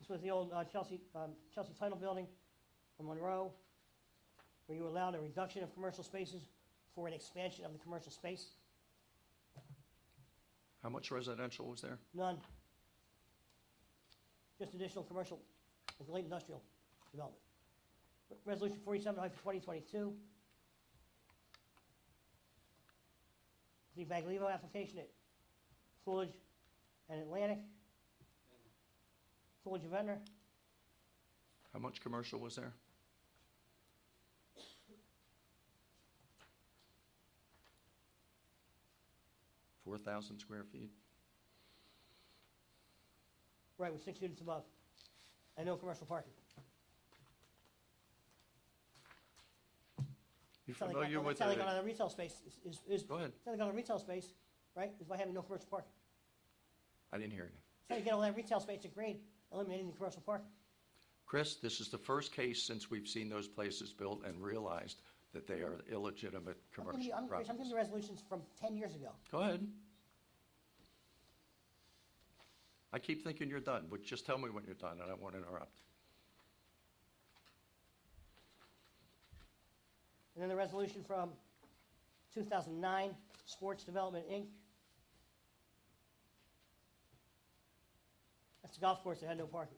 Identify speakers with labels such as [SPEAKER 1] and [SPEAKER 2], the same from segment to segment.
[SPEAKER 1] This was the old uh, Chelsea, um, Chelsea Title Building on Monroe, where you allowed a reduction of commercial spaces for an expansion of the commercial space.
[SPEAKER 2] How much residential was there?
[SPEAKER 1] None. Just additional commercial, and light industrial development. Re- Resolution forty-seven twenty twenty-two. The Baglivo application at Coolidge and Atlantic. Coolidge and Ventnor,
[SPEAKER 2] How much commercial was there? Four thousand square feet?
[SPEAKER 1] right, with six units above, and no commercial parking.
[SPEAKER 2] You
[SPEAKER 1] It's not like
[SPEAKER 2] familiar
[SPEAKER 1] on-
[SPEAKER 2] with
[SPEAKER 1] It's not like
[SPEAKER 2] the,
[SPEAKER 1] on a retail space, is- is, is,
[SPEAKER 2] go ahead,
[SPEAKER 1] it's not like on a retail space, right, is by having no commercial parking.
[SPEAKER 2] I didn't hear you.
[SPEAKER 1] So you get all that retail space at grade, eliminating the commercial parking.
[SPEAKER 2] Chris, this is the first case since we've seen those places built and realized that they are illegitimate
[SPEAKER 1] I'm giving you- I'm-
[SPEAKER 2] commercial
[SPEAKER 1] I'm giving
[SPEAKER 2] properties.
[SPEAKER 1] you resolutions from 10 years ago.
[SPEAKER 2] Go ahead. I keep thinking you're done, but just tell me when you're done, and I won't interrupt.
[SPEAKER 1] And then the resolution from 2009, Sports Development, Inc. That's the golf course that had no parking.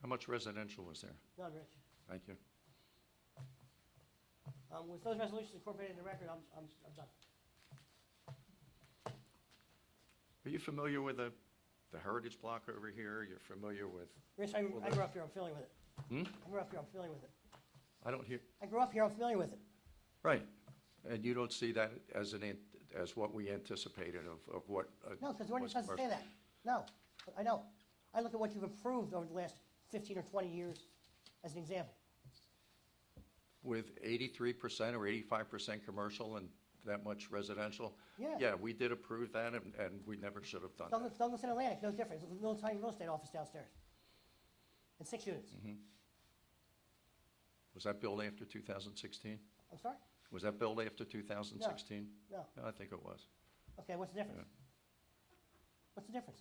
[SPEAKER 2] How much residential was there?
[SPEAKER 1] None, Rich.
[SPEAKER 2] Thank you.
[SPEAKER 1] Um, With those resolutions incorporated in the record, I'm I'm I'm done.
[SPEAKER 2] Are you familiar with the, the Heritage Block over here? You're familiar with,
[SPEAKER 1] Rich, I
[SPEAKER 2] Well,
[SPEAKER 1] I grew up here, I'm familiar with it.
[SPEAKER 2] Hmm?
[SPEAKER 1] I grew up here, I'm familiar with it.
[SPEAKER 2] I don't hear,
[SPEAKER 1] I grew up here, I'm familiar with it.
[SPEAKER 2] right. And you don't see that as an, ant- as what we anticipated of, of what? uh,
[SPEAKER 1] No, because the
[SPEAKER 2] was
[SPEAKER 1] ordinance doesn't say
[SPEAKER 2] commercial.
[SPEAKER 1] that. No, I don't. I look at what you've improved over the last 15 or 20 years as an example.
[SPEAKER 2] With eighty-three percent or eighty-five percent commercial and that much residential?
[SPEAKER 1] Yeah.
[SPEAKER 2] Yeah, we did approve that and, and we never should have done that.
[SPEAKER 1] Douglas, Douglas and Atlantic, no difference, There's a little tiny real estate office downstairs. And six units,
[SPEAKER 2] Mm-hmm. Was that built after two thousand sixteen?
[SPEAKER 1] I'm sorry?
[SPEAKER 2] Was that built after two thousand sixteen?
[SPEAKER 1] No,
[SPEAKER 2] I think it was.
[SPEAKER 1] okay, what's the difference? What's the difference?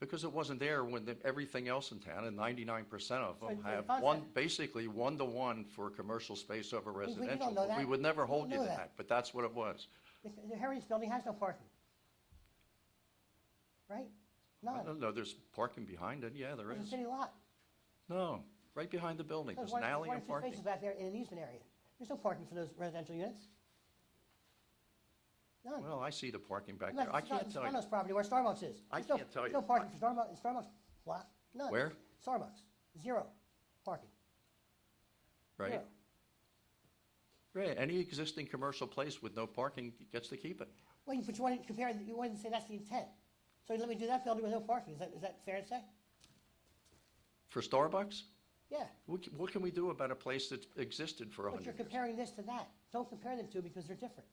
[SPEAKER 2] Because it wasn't there when the- everything else in town, and ninety-nine percent of
[SPEAKER 1] So
[SPEAKER 2] them
[SPEAKER 1] the
[SPEAKER 2] have
[SPEAKER 1] concept-
[SPEAKER 2] one, basically one-to-one for commercial space over
[SPEAKER 1] we don't
[SPEAKER 2] residential.
[SPEAKER 1] know
[SPEAKER 2] but We
[SPEAKER 1] that.
[SPEAKER 2] would never
[SPEAKER 1] We don't
[SPEAKER 2] hold you to
[SPEAKER 1] know that.
[SPEAKER 2] that, but that's what it was.
[SPEAKER 1] The the Heritage Building has no parking. Right?
[SPEAKER 2] I
[SPEAKER 1] None,
[SPEAKER 2] don't know, there's parking behind it, yeah, there
[SPEAKER 1] it's a
[SPEAKER 2] is.
[SPEAKER 1] city lot.
[SPEAKER 2] No, right behind the building,
[SPEAKER 1] There's
[SPEAKER 2] there's
[SPEAKER 1] one
[SPEAKER 2] an
[SPEAKER 1] there's
[SPEAKER 2] alley
[SPEAKER 1] one or
[SPEAKER 2] and
[SPEAKER 1] two spaces
[SPEAKER 2] parking.
[SPEAKER 1] back there in an easement area. There's no parking for those residential units. None.
[SPEAKER 2] Well, I see the parking back
[SPEAKER 1] Unless
[SPEAKER 2] there, I
[SPEAKER 1] it's not-
[SPEAKER 2] can't
[SPEAKER 1] it's
[SPEAKER 2] tell you.
[SPEAKER 1] Arnold's property where Starbucks is.
[SPEAKER 2] I
[SPEAKER 1] There's no-
[SPEAKER 2] can't tell
[SPEAKER 1] there's
[SPEAKER 2] you.
[SPEAKER 1] No parking for Starbucks, Starbucks block, none.
[SPEAKER 2] Where?
[SPEAKER 1] Starbucks, zero parking.
[SPEAKER 2] Right,
[SPEAKER 1] zero.
[SPEAKER 2] right, any existing commercial place with no parking gets to keep it.
[SPEAKER 1] Well, you- but you want to compare, you want to say that's the intent. So let me do that building with no parking, is that, is that fair to say?
[SPEAKER 2] For Starbucks,
[SPEAKER 1] Yeah,
[SPEAKER 2] what, c- what can we do about a place that's existed for a
[SPEAKER 1] but you're
[SPEAKER 2] hundred years?
[SPEAKER 1] comparing this to that. Don't compare them two because they're different.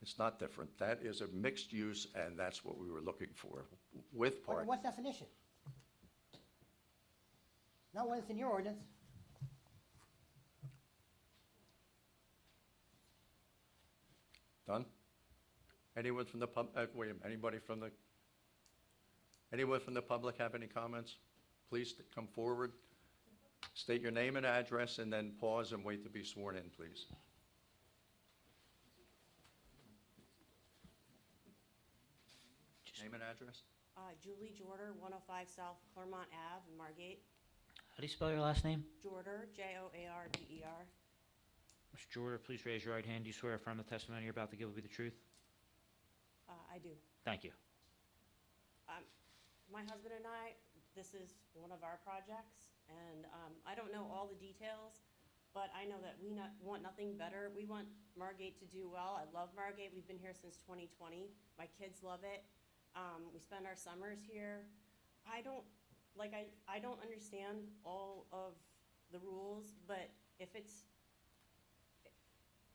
[SPEAKER 2] It's not different, that is a mixed use, and that's what we were looking for, w- with
[SPEAKER 1] Under
[SPEAKER 2] parking.
[SPEAKER 1] what definition? Not one that's in your ordinance.
[SPEAKER 2] Done? Anyone from the pub, uh, wait, a minute, anybody from the, anyone from the public have any comments? Please t- come forward, state your name and address, and then pause and wait to be sworn in, please. Name and address?
[SPEAKER 3] Uh, Julie Jorder, 105 South Claremont Ave, in Margate.
[SPEAKER 4] How do you spell your last name?
[SPEAKER 3] Jorder, J-O-A-R-D-E-R.
[SPEAKER 4] Mr. Jordan, please raise your right hand. Do you swear or affirm the testimony you're about to give will be the truth?
[SPEAKER 3] Uh, I do.
[SPEAKER 4] Thank you.
[SPEAKER 3] Um, My husband and I, this is one of our projects, and um, I don't know all the details, but I know that we not, want nothing better. We want Margate to do well. I love Margate. We've been here since 2020. My kids love it. Um, We spend our summers here. I don't, like, I, I don't understand all of the rules, but if it's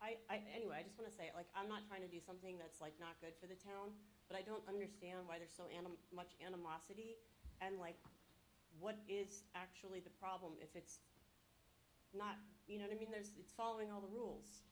[SPEAKER 3] I, I, anyway, I just want to say, like, I'm not trying to do something that's like not good for the town, but I don't understand why there's so anim- much animosity, and like, what is actually the problem if it's not, you know what I mean? There's, it's following all the rules.